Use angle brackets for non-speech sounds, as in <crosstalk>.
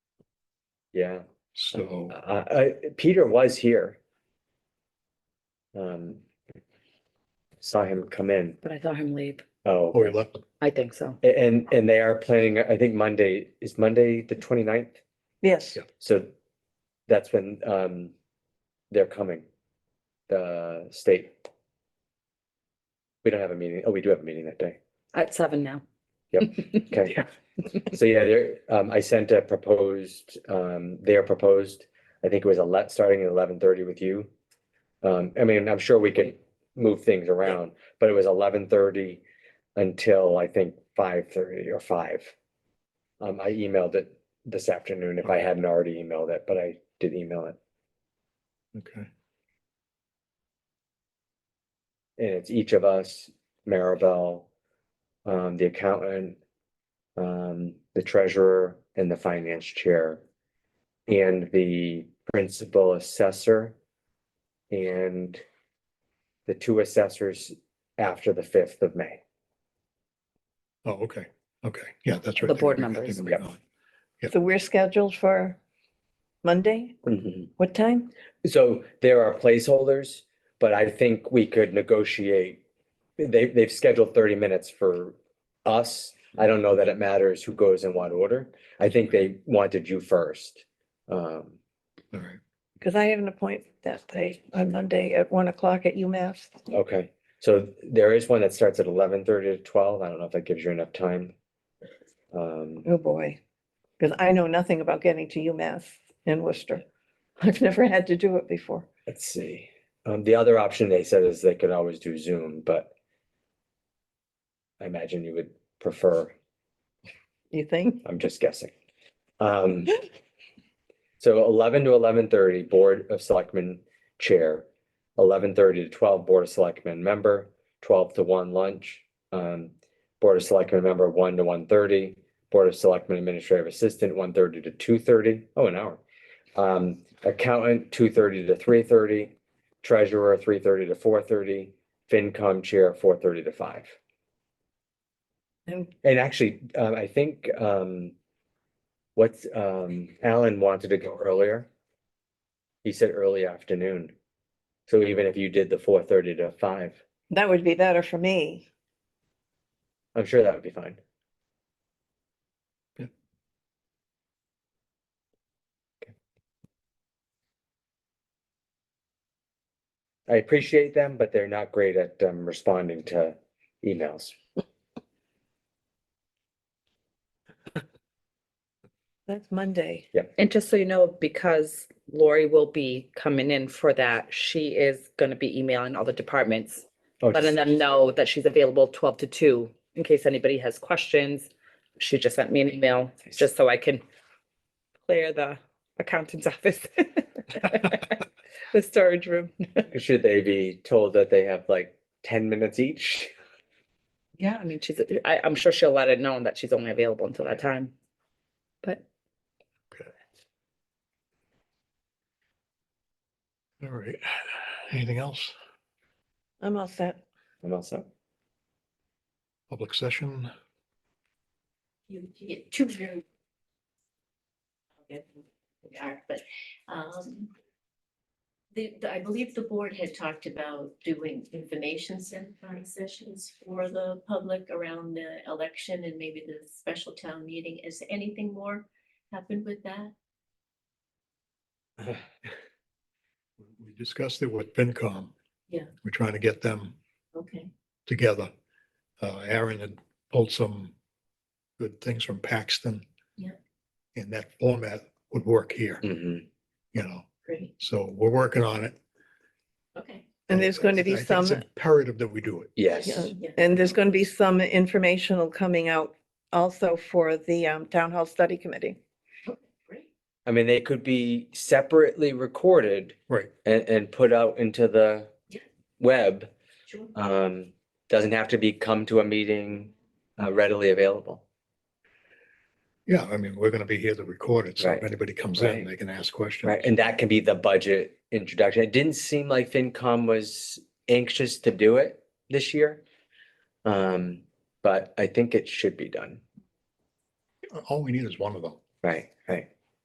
yeah. So I, I, Peter was here. Um. Saw him come in, but I saw him leave. oh, before we left, I think so. a- and, and they are planning, I think Monday, is Monday the 29th. Yes, Yeah. So that's when, um, they're coming, the state. We don't have a meeting, oh, we do have a meeting that day, At seven now. <laughs> okay. So yeah, there, um, I sent a proposed, um, their proposed, I think it was a let, starting at eleven thirty with you. Um, I mean, I'm sure we could move things around, but it was eleven thirty until I think five thirty or five. Um, I emailed it this afternoon if I hadn't already emailed it, but I did email it. okay, And it's each of us, Maribel, um, the accountant, um, the treasurer and the finance chair. And the principal assessor. And the two assessors after the fifth of May. oh, okay, okay, yeah, that's right. The they board were- I think members. they were Yep. gone. so we're scheduled for Monday? What time? Mm-hmm. So there are placeholders, but I think we could negotiate. They, they've scheduled thirty minutes for us. I don't know that it matters who goes in what order. I think they wanted you first. Um, All right, Because I have an appointment that day on Monday at one o'clock at UMass. okay, so there is one that starts at eleven thirty to twelve. I don't know if that gives you enough time. Um, Oh, boy. Because I know nothing about getting to UMass in Worcester. <laughs> I've never had to do it before. let's see. Um, the other option they said is they could always do Zoom, but I imagine you would prefer You think? I'm just guessing. Um, so eleven to eleven thirty, Board of Selectmen Chair, eleven thirty to twelve, Board of Selectmen Member, twelve to one lunch, um, Board of Selectmen Member, one to one thirty, Board of Selectmen Administrative Assistant, one thirty to two thirty. Oh, an hour. Um, Accountant, two thirty to three thirty, Treasurer, three thirty to four thirty, FinCom Chair, four thirty to five. And And actually, um, I think, um, what's, um, Alan wanted to go earlier. He said early afternoon. So even if you did the four thirty to five, that would be better for me. I'm sure that would be fine. Yeah. Okay. I appreciate them, but they're not great at, um, responding to emails. That's Monday. And just so you know, because Lori will be coming in for that, she is gonna be emailing all the departments, Oh, letting them know that she's available twelve to two in case anybody has questions. She just sent me an email just so I can clear the <laughs> accountant's <laughs> office. The storage room. <laughs> Should they be told that they have like ten minutes each? Yeah, I mean, she's, I, I'm sure she'll let it known that she's only available until that time. But all right. Anything else? I'm all set. I'm also, Public session? you you get two very. We are, but, um. The, the- I believe the board had talked about doing information sen- uh, sessions for the public around the election and maybe the special town meeting. Is anything more happened with that? We discussed it with FinCom. Yeah. We're trying to get them Okay, together. Uh, Aaron had pulled some good things from Paxton. Yeah. And that format would work here, Mhm. you know, great, so we're working on it. okay. And there's going to be I think it's some, Imperative that we do it. Yeah. yes, Yeah, and there's going to be some informational coming out also for the um, Town Hall Study Committee. okay, great. I mean, they could be separately recorded Right. and, and put out into the Yeah. web. Sure. Um, doesn't have to be come to a meeting uh, readily available. Yeah, I mean, we're going to be here to record it. So if Right. anybody comes Right. in, they can ask questions. Right, and that can be the budget introduction. It didn't seem like FinCom was anxious to do it this year. Um, but I think it should be done. All we need is one of them. Right, right.